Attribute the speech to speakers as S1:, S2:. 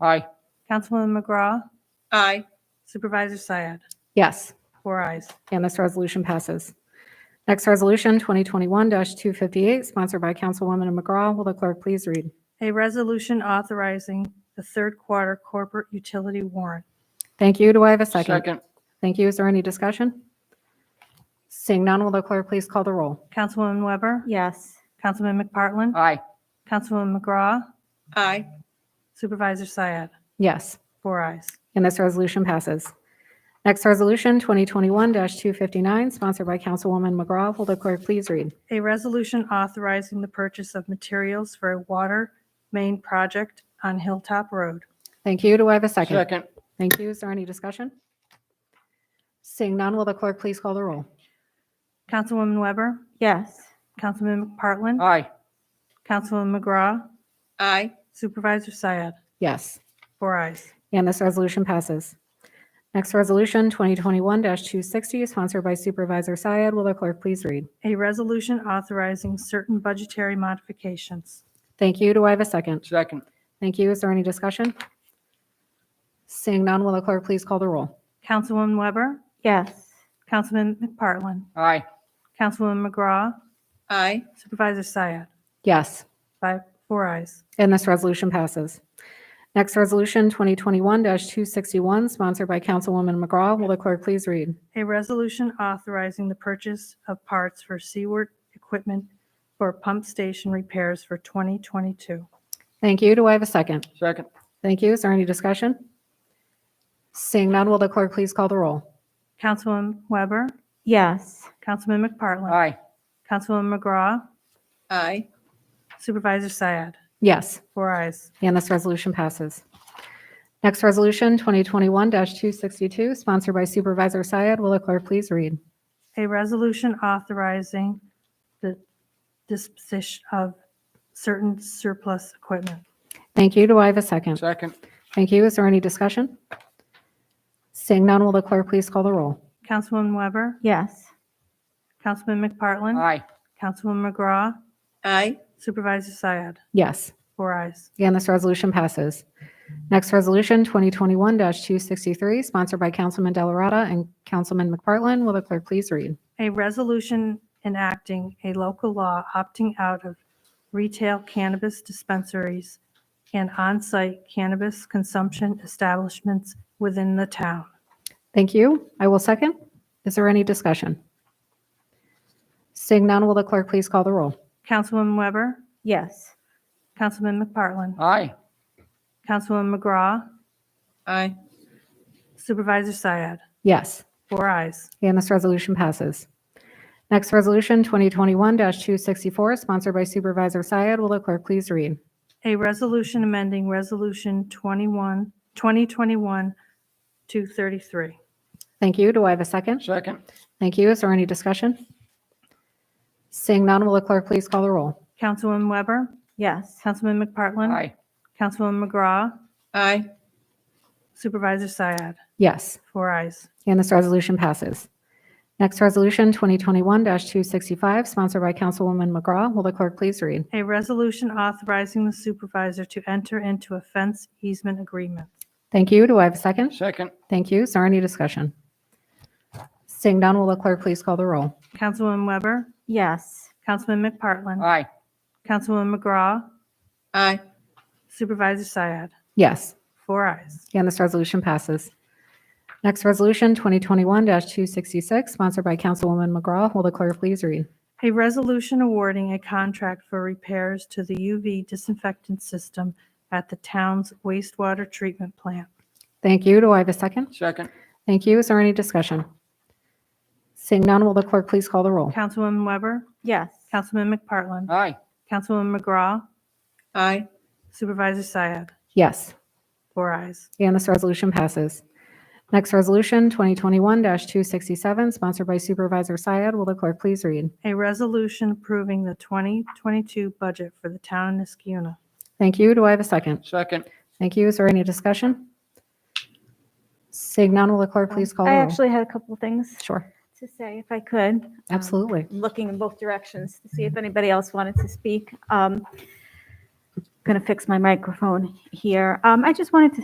S1: Aye.
S2: Councilwoman McGraw,
S3: Aye.
S2: Supervisor Syed,
S4: Yes,
S2: four eyes.
S4: and this resolution passes. Next resolution, 2021-258, sponsored by Councilwoman McGraw. Will the clerk please read?
S2: A resolution authorizing the third quarter corporate utility warrant.
S4: Thank you. Do I have a second? Thank you. Is there any discussion? Seeing none, will the clerk please call the roll?
S2: Councilwoman Weber?
S5: yes,
S2: Councilman McPartlin?
S1: Aye.
S2: Councilwoman McGraw,
S3: Aye.
S2: Supervisor Syed,
S4: Yes,
S2: four eyes.
S4: and this resolution passes. Next resolution, 2021-259, sponsored by Councilwoman McGraw. Will the clerk please read?
S2: A resolution authorizing the purchase of materials for a water main project on Hilltop Road.
S4: Thank you. Do I have a second?
S1: Second.
S4: Thank you. Is there any discussion? Seeing none, will the clerk please call the roll?
S2: Councilwoman Weber,
S5: yes,
S2: Councilman McPartlin,
S1: Aye.
S2: Councilwoman McGraw,
S3: Aye.
S2: Supervisor Syed,
S4: Yes,
S2: four eyes.
S4: and this resolution passes. Next resolution, 2021-260, sponsored by Supervisor Syed. Will the clerk please read?
S2: A resolution authorizing certain budgetary modifications.
S4: Thank you. Do I have a second?
S1: Second.
S4: Thank you. Is there any discussion? Seeing none, will the clerk please call the roll?
S2: Councilwoman Weber,
S5: yes,
S2: Councilman McPartlin,
S1: Aye.
S2: Councilwoman McGraw,
S3: Aye.
S2: Supervisor Syed,
S4: Yes,
S2: five, four eyes.
S4: and this resolution passes. Next resolution, 2021-261, sponsored by Councilwoman McGraw. Will the clerk please read?
S2: A resolution authorizing the purchase of parts for Seaward equipment for pump station repairs for 2022.
S4: Thank you. Do I have a second?
S1: Second.
S4: Thank you. Is there any discussion? Seeing none, will the clerk please call the roll?
S2: Councilwoman Weber,
S5: yes,
S2: Councilman McPartlin,
S1: Aye.
S2: Councilwoman McGraw,
S3: Aye.
S2: Supervisor Syed,
S4: Yes,
S2: four eyes.
S4: and this resolution passes. Next resolution, 2021-262, sponsored by Supervisor Syed. Will the clerk please read?
S2: A resolution authorizing the disposition of certain surplus equipment.
S4: Thank you. Do I have a second?
S1: Second.
S4: Thank you. Is there any discussion? Seeing none, will the clerk please call the roll?
S2: Councilwoman Weber,
S5: yes,
S2: Councilman McPartlin,
S1: Aye.
S2: Councilwoman McGraw,
S3: Aye.
S2: Supervisor Syed,
S4: Yes,
S2: four eyes.
S4: and this resolution passes. Next resolution, 2021-263, sponsored by Councilman Delarada and Councilman McPartlin. Will the clerk please read?
S2: A resolution enacting a local law opting out of retail cannabis dispensaries and on-site cannabis consumption establishments within the town.
S4: Thank you. I will second. Is there any discussion? Seeing none, will the clerk please call the roll?
S2: Councilwoman Weber,
S5: yes,
S2: Councilman McPartlin,
S1: Aye.
S2: Councilwoman McGraw,
S3: Aye.
S2: Supervisor Syed,
S4: Yes,
S2: four eyes.
S4: and this resolution passes. Next resolution, 2021-264, sponsored by Supervisor Syed. Will the clerk please read?
S2: A resolution amending Resolution 21, 2021-233.
S4: Thank you. Do I have a second?
S1: Second.
S4: Thank you. Is there any discussion? Seeing none, will the clerk please call the roll?
S2: Councilwoman Weber,
S5: yes,
S2: Councilman McPartlin.
S1: Aye.
S2: Councilwoman McGraw,
S3: Aye.
S2: Supervisor Syed,
S4: Yes,
S2: four eyes.
S4: and this resolution passes. Next resolution, 2021-265, sponsored by Councilwoman McGraw. Will the clerk please read?
S2: A resolution authorizing the supervisor to enter into a fence easement agreement.
S4: Thank you. Do I have a second?
S1: Second.
S4: Thank you. Is there any discussion? Seeing none, will the clerk please call the roll?
S2: Councilwoman Weber,
S5: yes,
S2: Councilman McPartlin,
S1: Aye.
S2: Councilwoman McGraw,
S3: Aye.
S2: Supervisor Syed,
S4: Yes,
S2: four eyes.
S4: and this resolution passes. Next resolution, 2021-266, sponsored by Councilwoman McGraw. Will the clerk please read?
S2: A resolution awarding a contract for repairs to the UV disinfectant system at the town's wastewater treatment plant.
S4: Thank you. Do I have a second?
S1: Second.
S4: Thank you. Is there any discussion? Seeing none, will the clerk please call the roll?
S2: Councilwoman Weber,
S5: yes,
S2: Councilman McPartlin,
S1: Aye.
S2: Councilwoman McGraw,
S3: Aye.
S2: Supervisor Syed,
S4: Yes,
S2: four eyes.
S4: and this resolution passes. Next resolution, 2021-267, sponsored by Supervisor Syed. Will the clerk please read?
S2: A resolution approving the 2022 budget for the town of Niskiuna.
S4: Thank you. Do I have a second?
S1: Second.
S4: Thank you. Is there any discussion? Seeing none, will the clerk please call the
S5: I
S4: roll?
S5: actually had a couple of things
S4: Sure,
S5: to say, if I could. Um,
S4: absolutely.
S5: looking in both directions to see if anybody else wanted to speak. Um, going to fix my microphone here. Um, I just wanted to